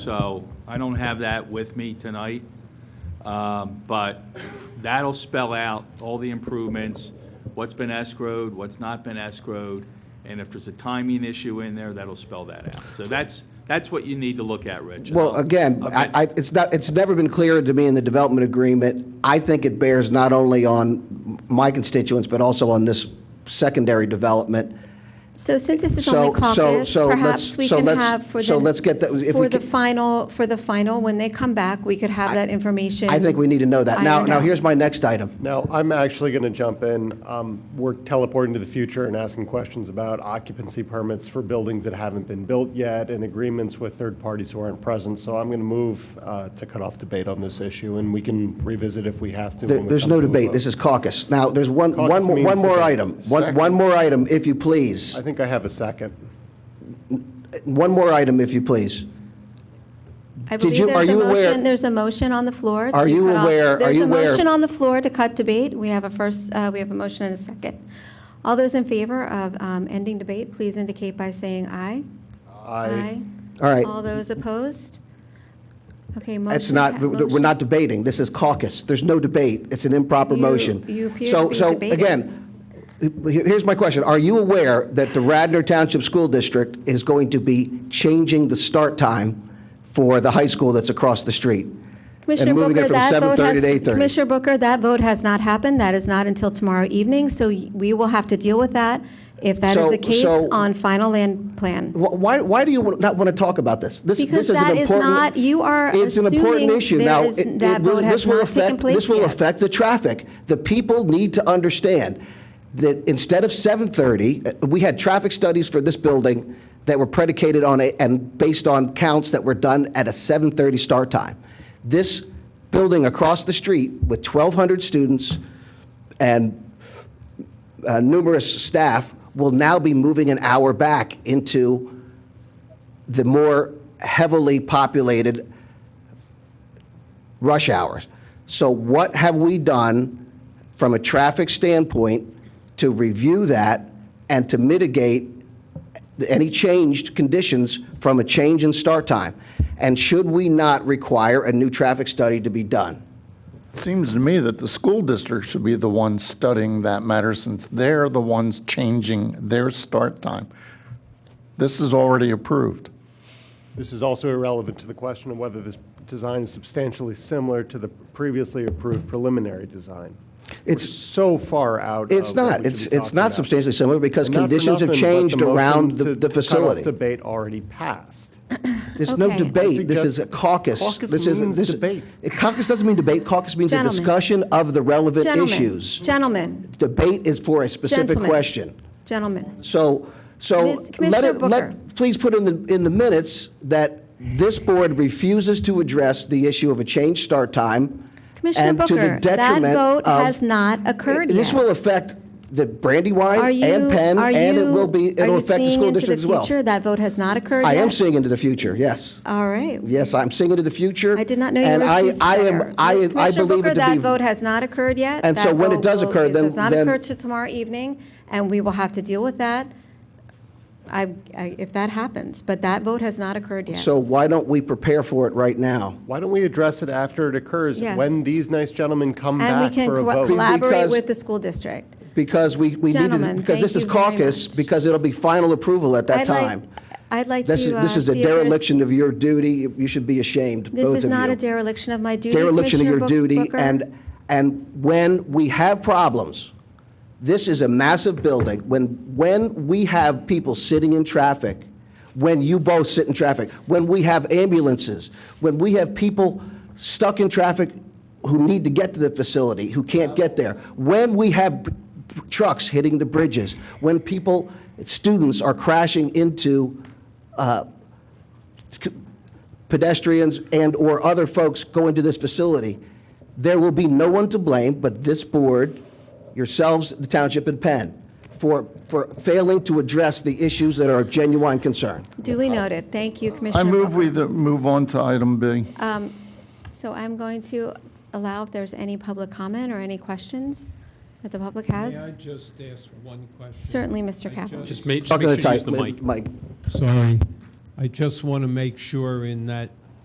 So I don't have that with me tonight, Um, but that'll spell out all the improvements, what's been escrowed, what's not been escrowed, and if there's a timing issue in there, that'll spell that out. So that's, that's what you need to look at, Rich. Well, again, I, I- it's not, it's never been clearer to me in the development agreement. I think it bears not only on my constituents, but also on this secondary development. So since this is So- only so- caucus, so let's- perhaps we so can let's- have for so let's the, get that- if we for the can- final, for the final, when they come back, we could have that information. I think we need to know that. Now, ironed now out. here's my next item. Now, I'm actually going to jump in. Um, We're teleporting to the future and asking questions about occupancy permits for buildings that haven't been built yet and agreements with third parties who aren't present. So I'm going to move uh, to cut off debate on this issue, and we can revisit if we have to. There- when we There's come no to a debate, vote. this is caucus. Now, there's one, Caucus one, more- one means more debate. item, one, Second. one more item, if you please. I think I have a second. One more item, if you please. I did believe you- are there's a you aware- motion, there's a motion on the floor. to Are you cut off- aware- are you aware- There's a motion on the floor to cut debate. We have a first, uh, we have a motion and a second. All those in favor of um, ending debate, please indicate by saying aye. All right. All those opposed? Okay, motion. It's not, we're pa- Oh, motion- not debating, this is caucus, there's no debate, it's an improper You- motion. you appear So- to be debating. So, again, he- here's my question, are you aware that the Radnor Township School District is going to be changing the start time for the high school that's across the street? Commissioner And moving Booker, it from that vote 7:30 has, to 8:30? Commissioner Booker, that vote has not happened. That is not until tomorrow evening, so y- we will have to deal with that if that is So- the case so- on final land plan. Wh- Why, why do you wa- not want to talk about this? This- this Because an that is important- not- you are It's an important assuming issue. there Now, is- it- it that will- vote this has will not taken affect- This place will yet. affect the traffic. The people need to understand that instead of 7:30, uh, we had traffic studies for this building that were predicated on, a- and based on counts that were done at a 7:30 start time. This building across the street with 1,200 students and uh, numerous staff will now be moving an hour back into the more heavily populated rush hours. So what have we done from a traffic standpoint to review that and to mitigate any changed conditions from a change in start time? And should we not require a new traffic study to be done? Seems to me that the school district should be the ones studying that matter since they're the ones changing their start time. This is already approved. This is also irrelevant to the question of whether this design is substantially similar to the previously approved preliminary design. We're It's- so far out of. It's Uh, what not, we it's, should be it's talking not about. substantially similar because Not for conditions have nothing, but changed motion around to the- the cut off facility. debate already passed. There's no Okay. debate. This is Suggest- a caucus. Caucus This is- means this is- debate. Caucus doesn't mean debate. Caucus means a Gentlemen. discussion of the relevant Gentlemen, issues. gentlemen, Debate is for a specific Gentlemen. question. gentlemen. So, so Miss- let Commissioner it, Booker. let, please put in the, in the minutes that this board refuses to address the issue of a changed start time. Commissioner and to the Booker, that detriment vote of- has not occurred yet. This will affect the Are Brandywine you, and Penn, are and it you, will be, are it'll you affect the seeing school into the district as well. future? That vote has not occurred yet? I am seeing into the future, yes. All right. Yes, I'm seeing into the future. I did not know you and were a I- I am- soothsayer. I, I, Commissioner believe Booker, it to that be- vote has not occurred yet. And That so when it vote does will- occur, It then- does not then- occur till tomorrow evening, and we will have to deal with that I- I- if that happens. But that vote has not occurred yet. So why don't we prepare for it right now? Why don't we address it after it occurs? Yes. When these nice gentlemen come And we back can for a co- vote? collaborate Because- with the school district. Because we, we need to, Gentlemen, because this thank is you very caucus, much. because it'll be final approval at that I'd like- time. I'd like to uh, This see is, if this is a there's- dereliction of your duty. You should be ashamed, both of you. This is not a dereliction of my duty, dereliction of Commissioner your Book- duty, Booker. and, and when we have problems, this is a massive building, when, when we have people sitting in traffic, when you both sit in traffic, when we have ambulances, when we have people stuck in traffic who need to get to the facility, who can't get there, when we have b- b- trucks hitting the bridges, when people, students are crashing into pedestrians and/or other folks go into this facility, there will be no one to blame but this board, yourselves, the township, and Penn, for, for failing to address the issues that are of genuine concern. Duly noted. Thank you, Commissioner I move Booker. we th- move on to item B. So I'm going to allow if there's any public comment or any questions that the public has. May I just ask one question? Certainly, Mr. Kaplan. Just make, Talk make to sure the you use type- the mic. Mike. Sorry. I just want to make sure in that